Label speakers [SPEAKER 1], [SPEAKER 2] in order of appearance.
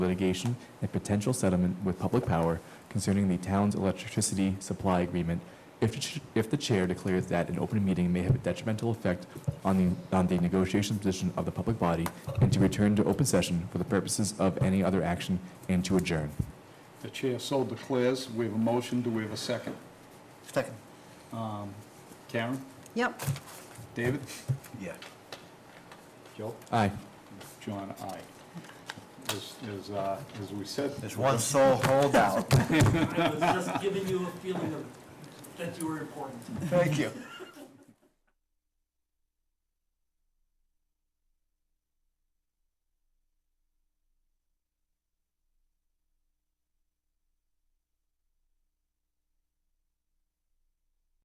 [SPEAKER 1] litigation and potential settlement with public power concerning the town's electricity supply agreement if, the ch- if the chair declares that an open meeting may have a detrimental effect on the, on the negotiation position of the public body and to return to open session for the purposes of any other action and to adjourn.
[SPEAKER 2] The chair so declares. We have a motion. Do we have a second?
[SPEAKER 3] Second.
[SPEAKER 2] Um, Karen?
[SPEAKER 4] Yep.
[SPEAKER 2] David?
[SPEAKER 3] Yeah.
[SPEAKER 2] Joe?
[SPEAKER 1] Aye.
[SPEAKER 2] John, aye. As, as, uh, as we said,
[SPEAKER 3] There's one sole holdout.
[SPEAKER 5] I was just giving you a feeling of, that you were important.
[SPEAKER 3] Thank you.